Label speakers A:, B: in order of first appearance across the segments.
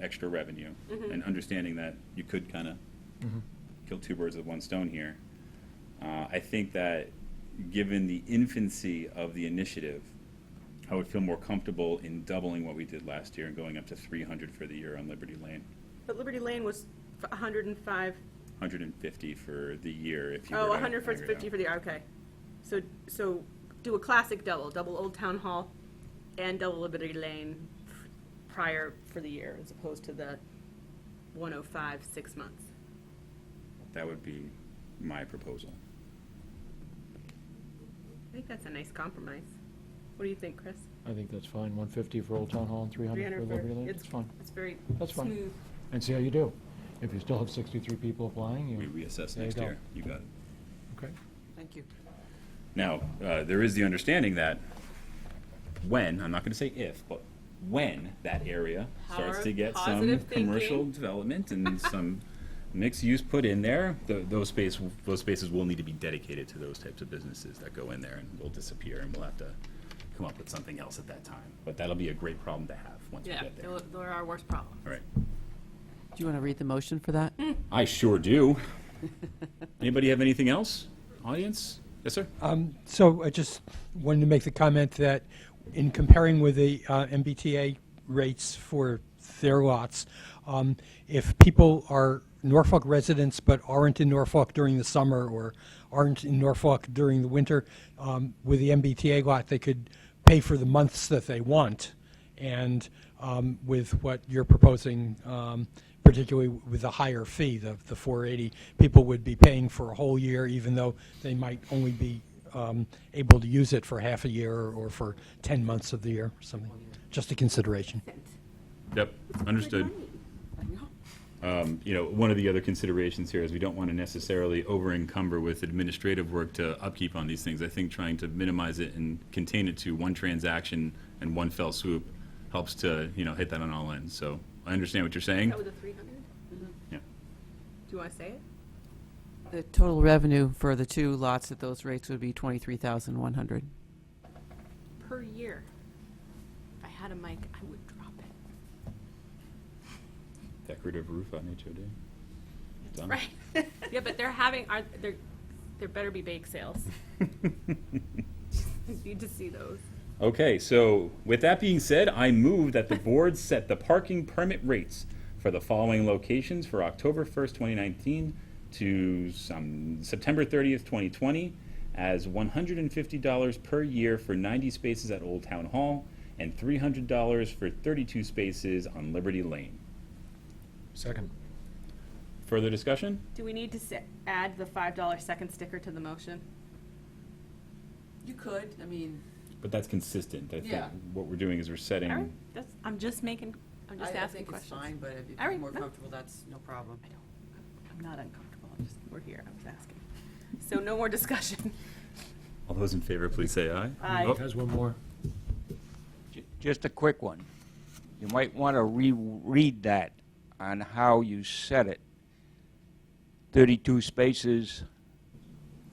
A: extra revenue and understanding that you could kind of
B: Mm-hmm.
A: kill two birds with one stone here. Uh, I think that given the infancy of the initiative, I would feel more comfortable in doubling what we did last year and going up to 300 for the year on Liberty Lane,
C: But Liberty Lane was f- 105,
A: 150 for the year if you
C: oh,
A: were to aggregate
C: 150
A: out.
C: for the, okay. So, so do a classic double, double Old Town Hall and double Liberty Lane prior for the year as opposed to the 105, six months.
A: That would be my proposal.
C: I think that's a nice compromise. What do you think, Chris?
B: I think that's fine, one fifty for Old Town Hall and three hundred
C: 300
B: for
C: for-
B: Liberty Lane, it's fine.
C: It's very
B: That's fine.
C: smooth.
B: And see how you do. If you still have sixty-three people applying,
A: We
B: you,
A: reassess
B: There you
A: next
B: go.
A: year. You got it.
B: okay.
D: Thank you.
A: Now, uh, there is the understanding that when, I'm not going to say if, but when that area starts
C: Power
A: to
C: of
A: get some
C: positive
A: commercial
C: thinking.
A: development and some mixed use put in there, th- those space, those spaces will need to be dedicated to those types of businesses that go in there and will disappear and we'll have to come up with something else at that time. But that'll be a great problem to have once we
C: Yeah,
A: get there.
C: they're
A: All
C: they're our worst problem.
A: right.
D: Do you want to read the motion for that?
A: I sure do. Anybody have anything else? Audience? Yes, sir?
E: So I just wanted to make the comment that in comparing with the uh, MBTA rates for their lots, um, if people are Norfolk residents but aren't in Norfolk during the summer or aren't in Norfolk during the winter, um, with the MBTA lot, they could pay for the months that they want. And um, with what you're proposing, um, particularly with the higher fee, the the 480, people would be paying for a whole year, even though they might only be um, able to use it for half a year or for 10 months of the year, or something. Just a consideration.
A: Yep, understood. Um,
D: I know.
A: you know, one of the other considerations here is we don't want to necessarily over encumber with administrative work to upkeep on these things. I think trying to minimize it and contain it to one transaction and one fell swoop helps to, you know, hit that on all ends. So I understand what you're saying.
C: That was a 300?
A: Yeah.
C: Do you want to say it?
D: The total revenue for the two lots at those rates would be 23,100.
C: Per year. If I had a mic, I would drop it.
A: Decorative roof on HOD. Done.
C: Right. Yeah, but they're having, are, there, there better be bake sales. Need to see those.
A: Okay, so with that being said, I move that the board set the parking permit rates for the following locations for October 1st, 2019 to some, September 30th, 2020, as $150 per year for 90 spaces at Old Town Hall and $300 for 32 spaces on Liberty Lane.
B: Second.
A: Further discussion?
C: Do we need to se- add the $5 second sticker to the motion?
D: You could, I mean.
A: But that's consistent. I think
D: Yeah.
A: what we're doing is we're setting.
C: All right, that's, I'm just making, I'm just asking
D: I
C: questions.
D: think it's fine, but if
C: All
D: you're
C: right,
D: more
C: no.
D: comfortable, that's no problem.
C: I don't- I'm not uncomfortable, I'm just, we're here, I'm just asking. So no more discussion.
A: All those in favor, please say aye.
C: Aye.
A: Oh,
B: Has one more.
F: Ju- Just a quick one. You might want to reread that on how you said it. 32 spaces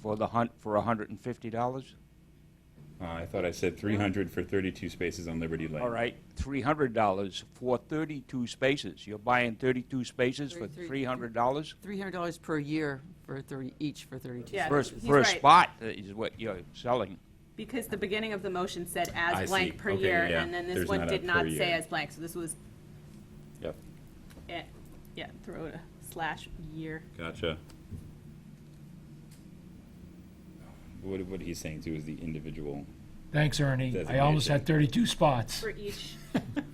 F: for the hunt for $150?
A: uh, I thought I said 300 for 32 spaces on Liberty Lane.
F: All right, $300 for 32 spaces. You're buying 32 spaces for
D: Thirty-three.
F: $300?
D: $300 per year for 30, each for 32.
C: Yeah.
F: Per,
C: he's
F: per
C: right.
F: spot is what you're selling.
C: Because the beginning of the motion said
A: I
C: as
A: see.
C: blank per
A: Okay,
C: year,
A: yeah,
C: and then this
A: there's
C: one
A: not a
C: did
A: per
C: not say
A: year.
C: as blank, so this was,
A: Yep.
C: eh, yeah, throw it a slash year.
A: Gotcha. What, what he's saying too is the individual.
B: Thanks, Ernie. I almost had thirty-two spots.
C: For each,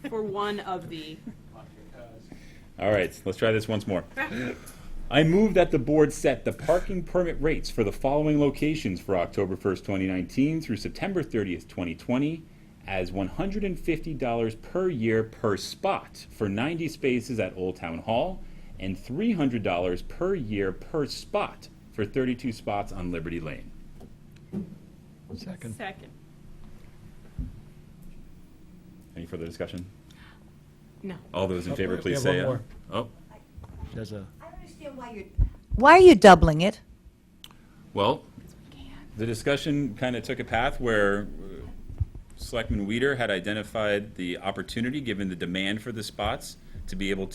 C: for one of the,
A: All right, let's try this once more. I move that the board set the parking permit rates for the following locations for October 1st, 2019 through September 30th, 2020 as $150 per year per spot for 90 spaces at Old Town Hall and $300 per year per spot for 32 spots on Liberty Lane.
B: Second.
C: second.
A: Any further discussion?
C: No.
A: All those in favor,
B: we- we
A: please
B: have one
A: say aye.
B: more.
A: Oh,
B: There's a,
G: I don't understand why you're, why are you doubling it?
A: well, the discussion kind of took a path where uh, Selectman Weeder had identified the opportunity, given the demand for the spots, to be able to.